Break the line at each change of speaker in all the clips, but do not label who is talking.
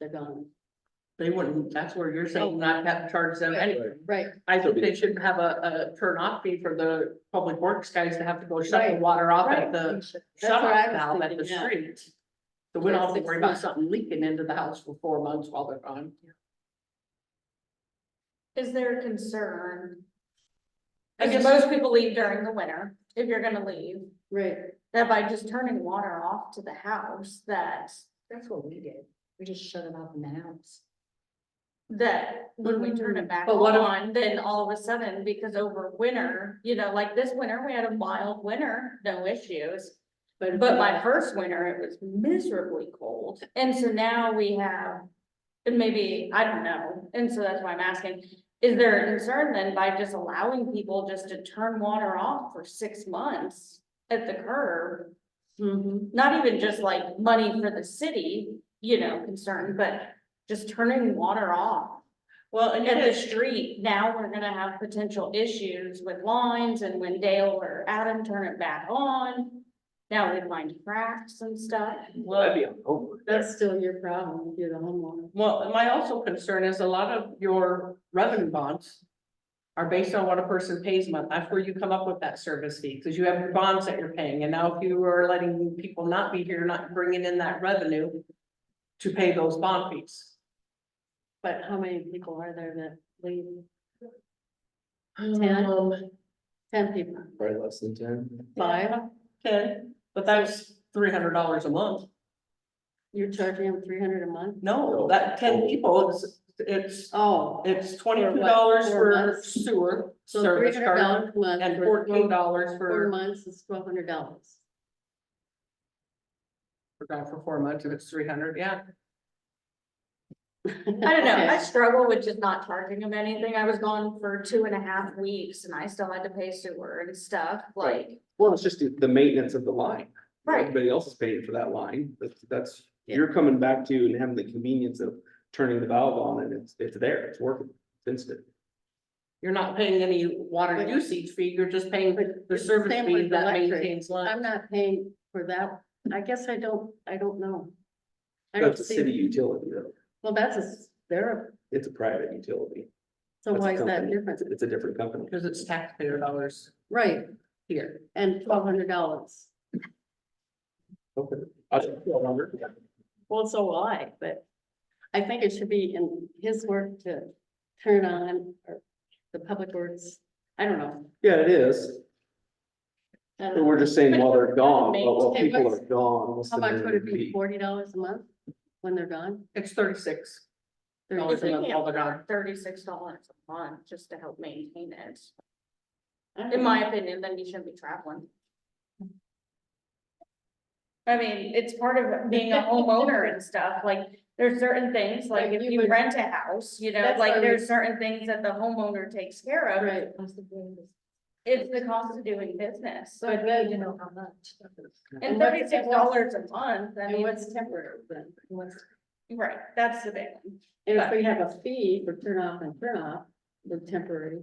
they're gone.
They wouldn't, that's where you're saying not have to charge them any.
Right,
I think they should have a, a turn off fee for the public works guys to have to go shut the
Right,
water off
right.
at
That's
the
what
shut
I
off
was
valve at the
thinking, yeah.
street. So we don't have to
Six
worry about
months.
something leaking into the house for four months while they're gone.
Is there a concern?
I
Cause
guess-
most people leave during the winter, if you're gonna leave,
Right,
that by just turning water off to the house, that,
that's what we did, we just shut them off in the house.
that when we turn it back
Mm. But what if-
on, then all of a sudden, because over winter, you know, like this winter, we had a mild winter, no issues. But my first winter, it was miserably cold, and so now we have, and maybe, I don't know, and so that's why I'm asking. Is there a concern then by just allowing people just to turn water off for six months at the curb?
mm-hmm.
Mhm.
Not even just like money for the city, you know, concern, but just turning water off
Well, and
at the
it is,
street, now we're gonna have potential issues with lines and when Dale or Adam turn it back on. Now we find cracks and stuff.
well,
Oh,
That's still your problem, if you're the homeowner.
Well, my also concern is a lot of your revenue bonds are based on what a person pays a month. That's where you come up with that service fee, because you have your bonds that you're paying. And now if you are letting people not be here, not bringing in that revenue to pay those bond fees.
But how many people are there that leave?
Um,
Ten people,
Probably less than ten.
Five, ten, but that's three hundred dollars a month.
you're charging them three hundred a month?
No, that ten people, it's, it's,
Oh,
it's twenty-two dollars
Four
for
months?
sewer
so three
service
hundred
charge
dollars a month.
and
for
fourteen dollars
Four
for,
months is twelve hundred dollars.
for that for four months, if it's three hundred, yeah.
I don't know, I struggle with just not charging them anything. I was gone for two and a half weeks and I still had to pay sewer and stuff, like.
Well, it's just the, the maintenance of the line.
Right.
Everybody else is paying for that line. That's, that's,
Yeah.
you're coming back to and having the convenience of turning the valve on and it's, it's there, it's working, it's instant.
You're not paying any water
But-
usage fee, you're just paying
But
the
it's the
service
same
fee
with
that
electric.
maintains line.
I'm not paying for that, I guess I don't, I don't know. I don't
That's a
see.
city utility though.
Well, that's a, they're,
It's a private utility.
so
That's a
why is that
company.
different?
It's a different company.
Cause it's taxpayer dollars
Right,
here.
and twelve hundred dollars.
Okay. I don't feel longer.
Well, so will I, but I think it should be in his work to turn on or the public works. I don't know.
Yeah, it is.
I don't
But we're
know.
just saying while they're gone, while while
Okay,
people are
what's-
gone. what's
How
the
much would it
minimum
be?
fee?
Forty dollars a month when they're gone?
It's thirty-six
Thirty-
dollars a month while they're gone.
Thirty-six dollars a month just to help maintain it.
I don't
In
know.
my opinion, then you shouldn't be traveling. I mean, it's part of being a homeowner and stuff, like, there's certain things, like
Like,
if
you
you
would-
rent a house, you know,
That's what I
like
was-
there's certain things that the homeowner takes care of.
Right.
It's the cost of doing business,
So I'd rather know how much.
and
And what's-
thirty-six
and what's-
dollars a month, I
And
mean,
what's temporary then? And what's-
right, that's the big one.
And if we have a fee for turn off and turn off, the temporary,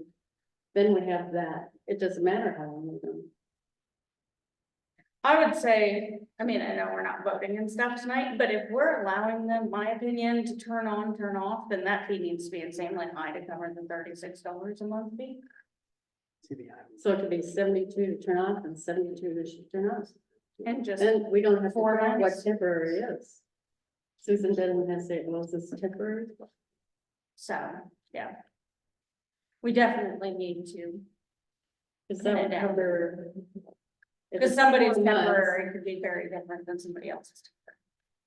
then we have that. It doesn't matter how long we're gone.
I would say, I mean, I know we're not voting and stuff tonight, but if we're allowing them, my opinion, to turn on, turn off, then that fee needs to be in same line I to cover the thirty-six dollars a month fee.
To the island.
So it could be seventy-two to turn off and seventy-two to sh- turn off.
And just,
Then we don't have to
Four
figure out what
months.
temporary is. Susan doesn't have to say, well, is this temporary?
so, yeah. We definitely need to,
Is that what
Yeah.
temporary? If
because
it's
somebody's
four months,
temporary could be very different than somebody else's.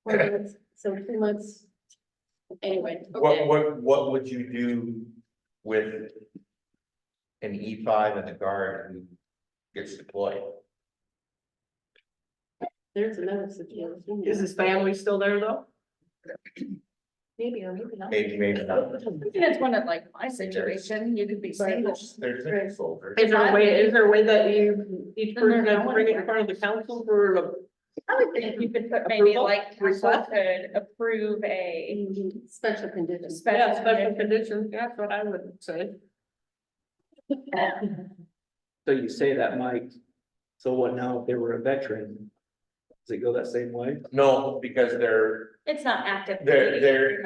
four months, So two months. Anyway,
What,
okay,
what, what would you do with an E five and the guard who gets deployed?
there's another situation.
Is his family still there though?
Maybe or maybe not.
Maybe, maybe not.
And it's one of like my situation, you could be single.
There's different folders.
Is there a way, is there a way that you, each
Then they're
person has to
going
bring it in
anywhere.
front of the council for a
I would think you could put maybe
Approval?
like, council
Request?
could approve a
Mhm, Special conditions.
yeah, special
special.
condition? That's what I would say.
um,
So you say that, Mike, so what now if they were a veteran? Does it go that same way?
No, because they're,
It's not active.
They're-
duty.
they're-